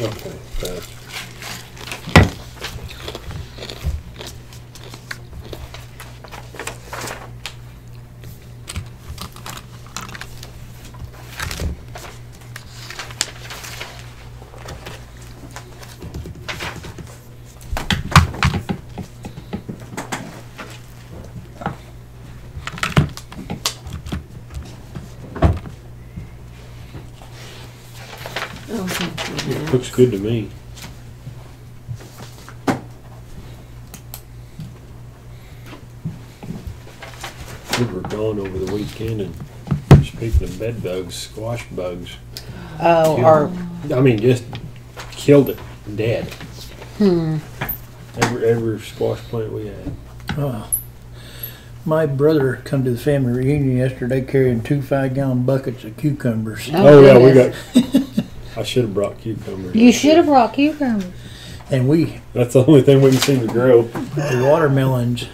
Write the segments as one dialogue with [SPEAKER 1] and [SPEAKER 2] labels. [SPEAKER 1] Okay, passed.
[SPEAKER 2] Oh, thank you,
[SPEAKER 1] It
[SPEAKER 2] Max.
[SPEAKER 1] Looks good to me. We were gone over the weekend and speaking of bed bugs, squash bugs,
[SPEAKER 3] Oh,
[SPEAKER 1] Yeah.
[SPEAKER 3] or
[SPEAKER 1] I mean, just killed it dead. Hmm. Every, every squash plant we had.
[SPEAKER 4] Oh. My brother come to the family reunion yesterday carrying two five gallon buckets of cucumbers.
[SPEAKER 2] Oh,
[SPEAKER 1] Oh, yeah, we got,
[SPEAKER 2] goodness.
[SPEAKER 1] I should have brought cucumbers.
[SPEAKER 2] You should have brought cucumbers.
[SPEAKER 4] And we,
[SPEAKER 1] That's the only thing we can seem to grow.
[SPEAKER 4] the watermelons,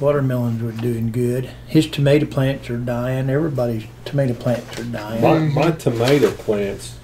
[SPEAKER 4] watermelons were doing good. His tomato plants are dying. Everybody's tomato plants are
[SPEAKER 1] My,
[SPEAKER 4] dying.
[SPEAKER 1] my tomato plants,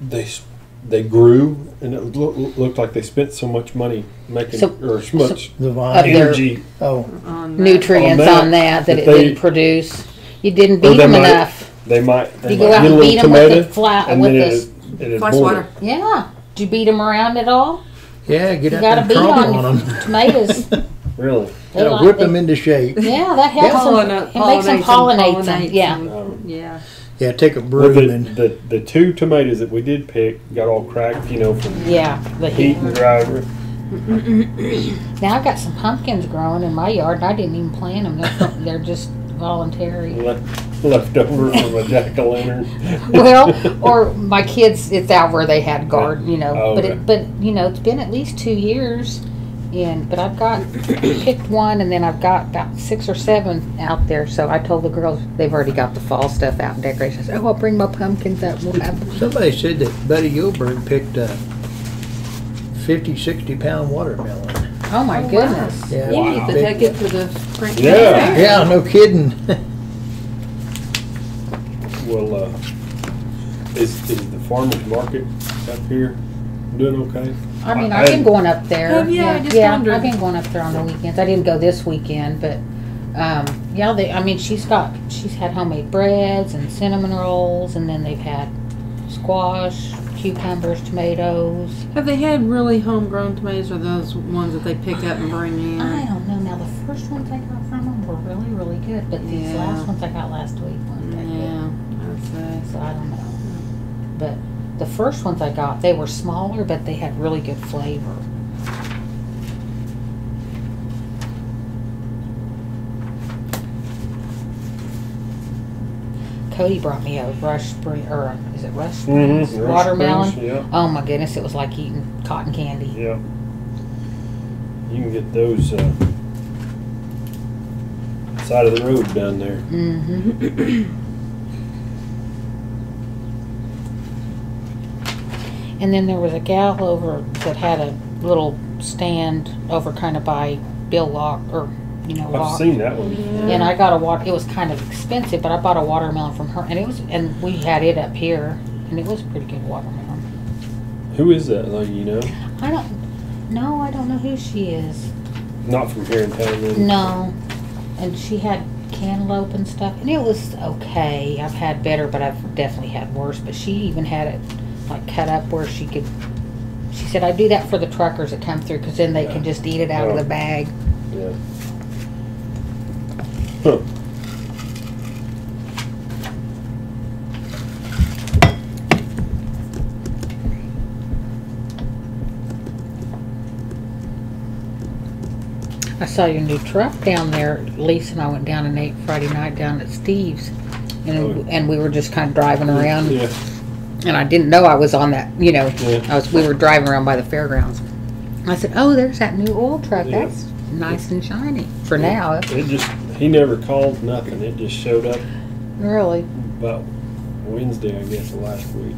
[SPEAKER 1] they s- they grew, and it loo- looked like they spent so much money making
[SPEAKER 2] So-
[SPEAKER 1] or so much
[SPEAKER 4] The
[SPEAKER 2] Of their-
[SPEAKER 4] vine,
[SPEAKER 1] energy,
[SPEAKER 4] oh,
[SPEAKER 2] Nutrients on
[SPEAKER 1] On
[SPEAKER 2] that that
[SPEAKER 1] that, that
[SPEAKER 2] it
[SPEAKER 1] they-
[SPEAKER 2] didn't produce. You didn't
[SPEAKER 1] Or
[SPEAKER 2] beat
[SPEAKER 1] they
[SPEAKER 2] them
[SPEAKER 1] might-
[SPEAKER 2] enough.
[SPEAKER 1] they might they
[SPEAKER 2] You
[SPEAKER 1] might
[SPEAKER 2] go out
[SPEAKER 1] get a
[SPEAKER 2] and
[SPEAKER 1] little
[SPEAKER 2] beat them with
[SPEAKER 1] tomato,
[SPEAKER 2] the flat,
[SPEAKER 1] and
[SPEAKER 2] with
[SPEAKER 1] then
[SPEAKER 2] this.
[SPEAKER 1] it, it is
[SPEAKER 3] Flash
[SPEAKER 1] born.
[SPEAKER 3] water.
[SPEAKER 2] Yeah. Did you beat them around at all?
[SPEAKER 4] yeah, get
[SPEAKER 2] You
[SPEAKER 4] out
[SPEAKER 2] got
[SPEAKER 4] there
[SPEAKER 2] to
[SPEAKER 4] and
[SPEAKER 2] beat
[SPEAKER 4] trample on
[SPEAKER 2] on
[SPEAKER 4] them.
[SPEAKER 2] tomatoes. They
[SPEAKER 1] Really,
[SPEAKER 4] Yeah,
[SPEAKER 2] like-
[SPEAKER 4] whip
[SPEAKER 2] they-
[SPEAKER 4] them into shape.
[SPEAKER 2] Yeah, that helps
[SPEAKER 3] Pollina-
[SPEAKER 2] them. It makes them pollinate, them.
[SPEAKER 3] pollinates
[SPEAKER 2] Yeah.
[SPEAKER 1] um,
[SPEAKER 3] Yeah.
[SPEAKER 4] Yeah, take a
[SPEAKER 1] well,
[SPEAKER 4] broom
[SPEAKER 1] the,
[SPEAKER 4] and
[SPEAKER 1] the the two tomatoes that we did pick got all cracked, you know, from
[SPEAKER 2] Yeah. The
[SPEAKER 1] heat
[SPEAKER 2] heat.
[SPEAKER 1] and driver.
[SPEAKER 2] Now I've got some pumpkins growing in my yard, and I didn't even plant them. They're, from- they're just voluntary.
[SPEAKER 1] Left, left over from a jack o' lantern.
[SPEAKER 2] Well, or my kids, it's out where they had garden, you know.
[SPEAKER 1] Oh,
[SPEAKER 2] but
[SPEAKER 1] okay.
[SPEAKER 2] it, but you know, it's been at least two years, and but I've got picked one, and then I've got about six or seven out there. So I told the girls they've already got the fall stuff out and decorations. Oh, I'll bring my pumpkins up. We'll have
[SPEAKER 4] Somebody said that Buddy Gilbert picked a 50, 60 pound watermelon.
[SPEAKER 2] Oh my
[SPEAKER 3] Oh, wow.
[SPEAKER 2] goodness.
[SPEAKER 4] Yeah,
[SPEAKER 3] You need to
[SPEAKER 4] big-
[SPEAKER 3] take it to the Frank
[SPEAKER 1] Yeah.
[SPEAKER 3] Fair.
[SPEAKER 4] Yeah, no kidding.
[SPEAKER 1] Well, uh, is is the farmers market up here doing okay?
[SPEAKER 2] I mean,
[SPEAKER 1] I-
[SPEAKER 2] I've been going up there.
[SPEAKER 3] Have ya? I just
[SPEAKER 2] yeah,
[SPEAKER 3] wondered.
[SPEAKER 2] I've been going up there on the weekends. I didn't go this weekend, but um, yeah, they. I mean, she's got she's had homemade breads and cinnamon rolls, and then they've had squash, cucumbers, tomatoes.
[SPEAKER 3] Have they had really homegrown tomatoes or those ones that they pick up and bring in?
[SPEAKER 2] I don't know. Now the first ones I got from them were really really good, but these
[SPEAKER 3] Yeah.
[SPEAKER 2] last ones I got last week weren't that good.
[SPEAKER 3] Yeah, I'd say.
[SPEAKER 2] So I don't know. But the first ones I got, they were smaller, but they had really good flavor. Cody brought me a rush spring, or is it rush springs
[SPEAKER 1] Mhm. Rush
[SPEAKER 2] watermelon?
[SPEAKER 1] Springs, yeah.
[SPEAKER 2] Oh my goodness, it was like eating cotton candy.
[SPEAKER 1] Yeah. You can get those uh, side of the road down there.
[SPEAKER 2] Mm-hmm. And then there was a gal over that had a little stand over kind of by Bill Lock or you know
[SPEAKER 1] I've
[SPEAKER 2] Lock.
[SPEAKER 1] seen that one.
[SPEAKER 2] And I got a water. It was kind of expensive, but I bought a watermelon from her, and it was and we had it up here, and it was a pretty good watermelon.
[SPEAKER 1] Who is that? Like you know,
[SPEAKER 2] I don't. No, I don't know who she is.
[SPEAKER 1] not from here in town. Then.
[SPEAKER 2] No, and she had cantaloupe and stuff, and it was okay. I've had better, but I've definitely had worse. But she even had it like cut up where she could. She said, "I do that for the truckers that come through, because then they can just eat it out of the bag."
[SPEAKER 1] Yeah. Huh.
[SPEAKER 2] I saw your new truck down there. Lisa and I went down and ate Friday night down at Steve's. And,
[SPEAKER 1] Oh.
[SPEAKER 2] and we were just kind of driving around,
[SPEAKER 1] Yeah.
[SPEAKER 2] and I didn't know I was on that. You know,
[SPEAKER 1] Yeah.
[SPEAKER 2] I was. We were driving around by the fairgrounds. I said, "Oh, there's that new oil truck.
[SPEAKER 1] Yeah.
[SPEAKER 2] That's nice and shiny for
[SPEAKER 1] Yeah.
[SPEAKER 2] now."
[SPEAKER 1] It just he never called nothing. It just showed up
[SPEAKER 2] Really?
[SPEAKER 1] about Wednesday, I guess, of last week.